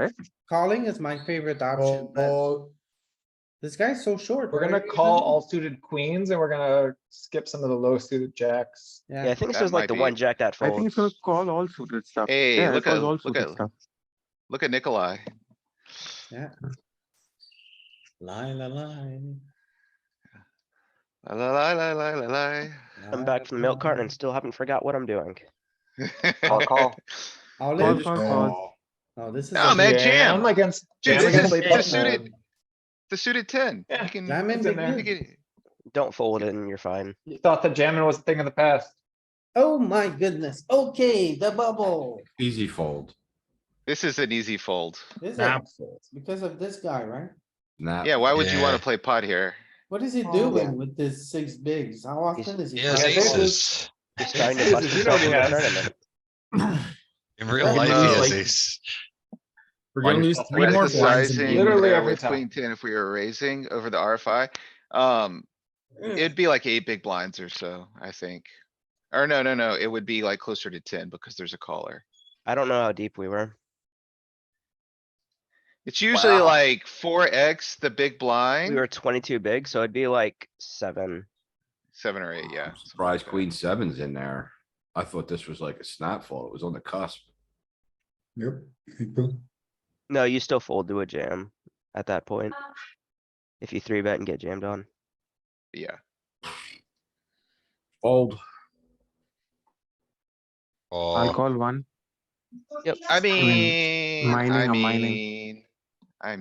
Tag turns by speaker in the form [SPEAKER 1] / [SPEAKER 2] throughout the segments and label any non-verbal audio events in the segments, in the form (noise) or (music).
[SPEAKER 1] Right?
[SPEAKER 2] Calling is my favorite option,
[SPEAKER 3] Oh,
[SPEAKER 4] Well,
[SPEAKER 2] but
[SPEAKER 4] well,
[SPEAKER 2] this guy's so short.
[SPEAKER 4] we're
[SPEAKER 2] for
[SPEAKER 4] gonna
[SPEAKER 2] a (laughs)
[SPEAKER 4] call
[SPEAKER 2] reason.
[SPEAKER 4] all suited queens and we're gonna skip some of the low suited jacks.
[SPEAKER 1] Yeah, I
[SPEAKER 2] Yeah,
[SPEAKER 1] think this
[SPEAKER 3] That
[SPEAKER 1] was like
[SPEAKER 3] might
[SPEAKER 1] the
[SPEAKER 3] be-
[SPEAKER 1] one jack that
[SPEAKER 5] I think it's
[SPEAKER 1] folds.
[SPEAKER 5] gonna call all suited stuff.
[SPEAKER 3] Hey,
[SPEAKER 5] Yeah, it
[SPEAKER 3] look
[SPEAKER 5] calls
[SPEAKER 3] at-
[SPEAKER 5] all
[SPEAKER 3] look
[SPEAKER 5] suited
[SPEAKER 3] at-
[SPEAKER 5] stuff.
[SPEAKER 3] Look at Nikolai.
[SPEAKER 6] Lie, lie, lie.
[SPEAKER 3] La la la la la la.
[SPEAKER 1] I'm back from the milk carton and still haven't forgot what I'm doing.
[SPEAKER 4] Call, call.
[SPEAKER 2] all
[SPEAKER 5] Call,
[SPEAKER 2] in.
[SPEAKER 5] call, call.
[SPEAKER 2] Oh, this is.
[SPEAKER 3] Nah,
[SPEAKER 2] a-
[SPEAKER 3] man,
[SPEAKER 4] Yeah,
[SPEAKER 3] jam.
[SPEAKER 4] I'm against.
[SPEAKER 3] (laughs)
[SPEAKER 4] jam
[SPEAKER 3] Dude, this
[SPEAKER 4] against
[SPEAKER 3] is-
[SPEAKER 4] late
[SPEAKER 3] it's a
[SPEAKER 4] button.
[SPEAKER 3] suited- The suited ten.
[SPEAKER 4] Yeah.
[SPEAKER 3] You can,
[SPEAKER 2] Jam in
[SPEAKER 4] it's
[SPEAKER 2] big
[SPEAKER 4] in there.
[SPEAKER 3] you
[SPEAKER 2] blind.
[SPEAKER 3] can,
[SPEAKER 1] Don't fold it and you're (laughs) fine.
[SPEAKER 4] You thought that jamming was a thing of the past.
[SPEAKER 2] Oh my goodness. Okay, the bubble.
[SPEAKER 6] Easy fold.
[SPEAKER 3] this is an easy fold.
[SPEAKER 2] This is
[SPEAKER 6] Nah.
[SPEAKER 2] because of this guy, right?
[SPEAKER 6] Nah.
[SPEAKER 3] Yeah, why would you wanna
[SPEAKER 6] Uh, Yeah.
[SPEAKER 3] play pot here?
[SPEAKER 2] What is he
[SPEAKER 4] Oh.
[SPEAKER 2] doing with this six bigs? How often is he?
[SPEAKER 7] He has
[SPEAKER 4] Yeah,
[SPEAKER 2] playing?
[SPEAKER 4] this
[SPEAKER 7] aces.
[SPEAKER 1] Just trying to
[SPEAKER 4] This
[SPEAKER 1] bust
[SPEAKER 4] is
[SPEAKER 1] yourself in the
[SPEAKER 4] really bad.
[SPEAKER 1] tournament.
[SPEAKER 7] In real
[SPEAKER 4] Fucking
[SPEAKER 7] life, he
[SPEAKER 3] knows.
[SPEAKER 7] has aces.
[SPEAKER 8] We're
[SPEAKER 7] On
[SPEAKER 8] gonna
[SPEAKER 7] your
[SPEAKER 8] lose
[SPEAKER 4] top
[SPEAKER 8] three
[SPEAKER 4] right.
[SPEAKER 8] more
[SPEAKER 4] This is
[SPEAKER 8] blinds. in
[SPEAKER 3] Sizing
[SPEAKER 8] the
[SPEAKER 4] Literally
[SPEAKER 8] game.
[SPEAKER 3] there
[SPEAKER 4] every
[SPEAKER 3] with
[SPEAKER 4] time.
[SPEAKER 3] Queen ten if we were raising over the RFI. Um,
[SPEAKER 2] Mm.
[SPEAKER 3] it'd be like eight big blinds or so, I think. Or no, no, no, it would be like closer to ten because there's a caller.
[SPEAKER 1] I don't know how deep we were.
[SPEAKER 3] It's usually
[SPEAKER 7] Wow.
[SPEAKER 3] like four X, the big
[SPEAKER 1] We
[SPEAKER 3] blind,
[SPEAKER 1] were twenty-two big, so itd be like seven.
[SPEAKER 3] seven or eight, yeah.
[SPEAKER 6] I'm
[SPEAKER 3] something
[SPEAKER 6] Surprised
[SPEAKER 3] like that.
[SPEAKER 6] queen seven's in there. I thought this was like a snap fold. It was on the cusp.
[SPEAKER 8] Yep.
[SPEAKER 1] No, you still fold to a jam at that point. If you three bet and get jammed on.
[SPEAKER 3] Yeah,
[SPEAKER 6] Fold.
[SPEAKER 5] I'll
[SPEAKER 7] Oh,
[SPEAKER 5] call one.
[SPEAKER 1] Yep.
[SPEAKER 3] I mean, I
[SPEAKER 5] mining or
[SPEAKER 3] mean,
[SPEAKER 5] mining.
[SPEAKER 3] I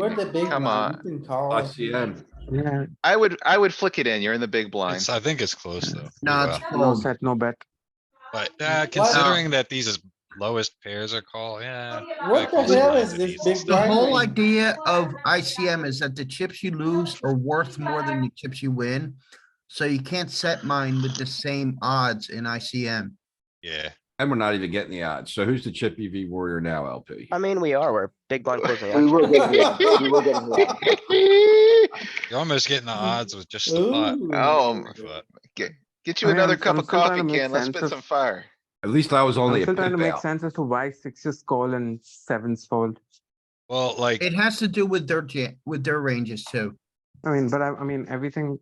[SPEAKER 2] We're the
[SPEAKER 3] mean,
[SPEAKER 2] big
[SPEAKER 3] come
[SPEAKER 2] one.
[SPEAKER 3] on.
[SPEAKER 2] You can call. if you
[SPEAKER 6] ICM.
[SPEAKER 2] want.
[SPEAKER 5] Yeah,
[SPEAKER 3] I would, I would flick it in. You're in the big blind.
[SPEAKER 7] it's, I think it's close though.
[SPEAKER 8] Nah,
[SPEAKER 7] Well,
[SPEAKER 8] it's
[SPEAKER 5] no
[SPEAKER 8] fold.
[SPEAKER 5] set, no bet.
[SPEAKER 7] But uh, considering that these is lowest pairs are called, yeah.
[SPEAKER 2] What the
[SPEAKER 7] Close
[SPEAKER 2] hell
[SPEAKER 7] blind
[SPEAKER 2] is
[SPEAKER 7] to
[SPEAKER 2] this
[SPEAKER 7] these.
[SPEAKER 2] big
[SPEAKER 8] The
[SPEAKER 2] blind?
[SPEAKER 3] (laughs)
[SPEAKER 8] whole
[SPEAKER 2] range?
[SPEAKER 8] idea of ICM is that the chips you lose are worth more than the chips you win. So you can't set mine with the same odds in ICM.
[SPEAKER 7] Yeah,
[SPEAKER 6] And we're not even getting the odds. So who's the chip EV warrior now, LP?
[SPEAKER 1] I mean, we are, we're big blind closing
[SPEAKER 9] We
[SPEAKER 2] (laughs)
[SPEAKER 1] action.
[SPEAKER 9] were getting, we were getting robbed.
[SPEAKER 7] you're almost getting the odds with just the pot.
[SPEAKER 2] Ooh.
[SPEAKER 3] Oh,
[SPEAKER 7] but-
[SPEAKER 3] get, (laughs) get you
[SPEAKER 5] I mean,
[SPEAKER 3] another
[SPEAKER 5] I'm-
[SPEAKER 3] cup
[SPEAKER 5] I'm
[SPEAKER 3] of
[SPEAKER 5] still trying to
[SPEAKER 3] coffee,
[SPEAKER 5] make
[SPEAKER 3] Ken. Let's
[SPEAKER 5] sense
[SPEAKER 3] spit
[SPEAKER 5] of-
[SPEAKER 3] some fire.
[SPEAKER 6] At least I was only
[SPEAKER 5] I'm
[SPEAKER 6] a
[SPEAKER 5] still trying to
[SPEAKER 6] pip
[SPEAKER 5] make
[SPEAKER 6] out.
[SPEAKER 5] sense as to why sixes call and sevens fold.
[SPEAKER 7] Well, like,
[SPEAKER 8] It has to do with their jam, with their ranges too.
[SPEAKER 5] I mean, but I, I mean, everything.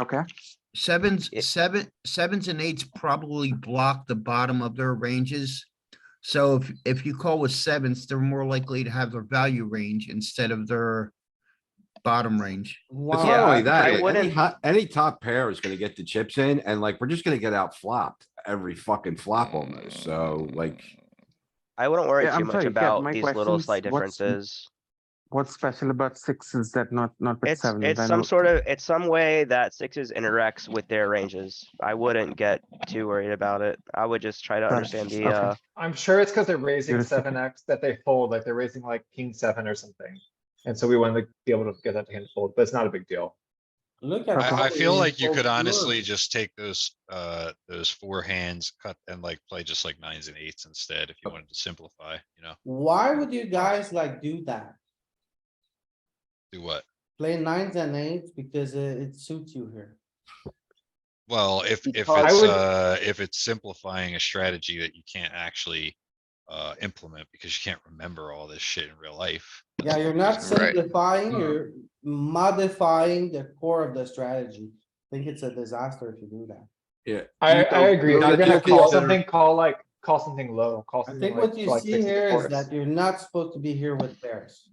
[SPEAKER 5] Okay,
[SPEAKER 8] Sevens,
[SPEAKER 1] It-
[SPEAKER 8] seven, sevens and eights probably block the bottom of their ranges. So if, if you call with sevens, they're more likely to have their value range instead of their bottom range.
[SPEAKER 6] It's
[SPEAKER 1] Yeah,
[SPEAKER 6] not only
[SPEAKER 1] I
[SPEAKER 6] that, like, any,
[SPEAKER 1] wouldn't-
[SPEAKER 6] hot- any top pair is gonna get the chips in and like, we're just gonna get out flopped every fucking flop almost. So like,
[SPEAKER 1] I wouldn't worry
[SPEAKER 5] Yeah,
[SPEAKER 1] too
[SPEAKER 5] I'm
[SPEAKER 1] much
[SPEAKER 5] sorry, Kev,
[SPEAKER 1] about
[SPEAKER 5] my
[SPEAKER 1] these little
[SPEAKER 5] question's
[SPEAKER 1] slight
[SPEAKER 5] what's-
[SPEAKER 1] differences.
[SPEAKER 5] what's special about sixes that not, not with
[SPEAKER 1] It's,
[SPEAKER 5] sevens?
[SPEAKER 1] it's
[SPEAKER 5] I
[SPEAKER 1] some
[SPEAKER 5] know-
[SPEAKER 1] sort of, it's some way that sixes interacts with their ranges. I wouldn't get too worried about it. I would just try to
[SPEAKER 5] Gotcha,
[SPEAKER 1] understand the,
[SPEAKER 5] okay.
[SPEAKER 1] uh,
[SPEAKER 4] I'm sure it's because they're raising
[SPEAKER 5] You're sick.
[SPEAKER 4] seven X that they fold, like they're raising like king seven or something. And so we wanted to be able to get that to hand fold, but it's not a big deal.
[SPEAKER 2] Look at.
[SPEAKER 5] Okay.
[SPEAKER 7] I, I
[SPEAKER 2] how
[SPEAKER 7] feel
[SPEAKER 2] he
[SPEAKER 7] like you
[SPEAKER 2] folds
[SPEAKER 7] could honestly
[SPEAKER 2] yours.
[SPEAKER 7] just take those, uh, those four hands, cut and like play just like nines and eights instead if you wanted to simplify, you know,
[SPEAKER 2] Why would you guys like do that?
[SPEAKER 7] do what?
[SPEAKER 2] Play nines and eights because it it suits you here.
[SPEAKER 7] Well, if, if it's,
[SPEAKER 4] Because- I would-
[SPEAKER 7] uh, if it's simplifying a strategy that you can't actually, uh, implement because you can't remember all this shit in real life.
[SPEAKER 2] Yeah, you're not
[SPEAKER 3] Right.
[SPEAKER 2] simplifying, you're modifying the core of the strategy. I think it's a disaster if you do that.
[SPEAKER 6] yeah. you
[SPEAKER 4] I, I
[SPEAKER 6] don't-
[SPEAKER 4] agree.
[SPEAKER 6] you
[SPEAKER 4] If you're
[SPEAKER 6] gotta
[SPEAKER 4] gonna
[SPEAKER 6] do
[SPEAKER 4] call
[SPEAKER 6] consider-
[SPEAKER 4] something, call like, call something low, call
[SPEAKER 2] I
[SPEAKER 4] something
[SPEAKER 2] think
[SPEAKER 4] like.
[SPEAKER 2] what you
[SPEAKER 4] like
[SPEAKER 2] see
[SPEAKER 4] six and
[SPEAKER 2] here is
[SPEAKER 4] fours.
[SPEAKER 2] that you're not supposed to be here with pairs.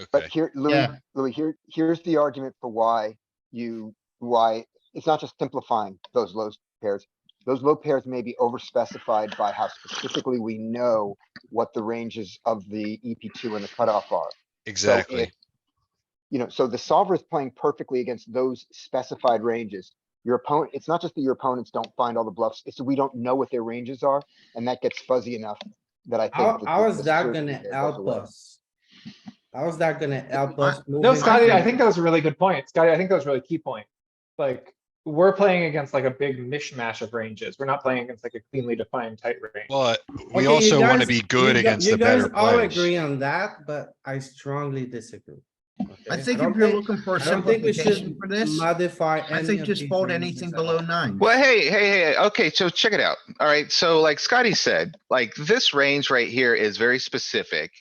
[SPEAKER 7] Okay.
[SPEAKER 9] But
[SPEAKER 2] eh,
[SPEAKER 9] here, Louis,
[SPEAKER 8] Yeah.
[SPEAKER 9] Louis, here, here's the argument for why you, why, it's not just simplifying those low pairs. Those low pairs may be overspecified by how specifically we know what the ranges of the EP two and the cutoff are.
[SPEAKER 7] Exactly.
[SPEAKER 9] if- You know, so the solver is playing perfectly against those specified ranges. Your opponent, it's not just that your opponents don't find all the bluffs, it's that we don't know what their ranges are, and that gets fuzzy enough that I think.
[SPEAKER 2] How,
[SPEAKER 9] that
[SPEAKER 2] how
[SPEAKER 9] the-
[SPEAKER 2] is
[SPEAKER 9] the
[SPEAKER 2] that
[SPEAKER 9] certainty there
[SPEAKER 2] gonna
[SPEAKER 9] goes
[SPEAKER 2] help
[SPEAKER 9] away.
[SPEAKER 2] us? How is that gonna help us? move
[SPEAKER 4] No,
[SPEAKER 2] it?
[SPEAKER 4] Scotty, I think that was a really good point. Scotty, I think that was a really key point. Like, we're playing against like a big mishmash of ranges. We're not playing against like a cleanly defined tight range.
[SPEAKER 7] But we
[SPEAKER 2] Okay, you
[SPEAKER 7] also want to
[SPEAKER 2] guys-
[SPEAKER 7] be good
[SPEAKER 2] you gu-
[SPEAKER 7] against the
[SPEAKER 2] You guys
[SPEAKER 7] better
[SPEAKER 2] all
[SPEAKER 7] players.
[SPEAKER 2] agree on that, but I strongly disagree.
[SPEAKER 8] I
[SPEAKER 2] Okay.
[SPEAKER 8] think
[SPEAKER 2] I
[SPEAKER 8] if
[SPEAKER 2] don't
[SPEAKER 8] you're
[SPEAKER 2] think-
[SPEAKER 8] looking for a
[SPEAKER 2] I don't think we
[SPEAKER 8] simplification
[SPEAKER 2] should
[SPEAKER 8] for this,
[SPEAKER 2] modify any
[SPEAKER 8] I
[SPEAKER 2] of
[SPEAKER 8] think just
[SPEAKER 2] these
[SPEAKER 8] fold
[SPEAKER 2] ranges
[SPEAKER 8] anything
[SPEAKER 2] at
[SPEAKER 8] below
[SPEAKER 2] all.
[SPEAKER 8] nine.
[SPEAKER 3] Well, hey, hey, hey, okay, so check it out. Alright, so like Scotty said, like this range right here is very specific.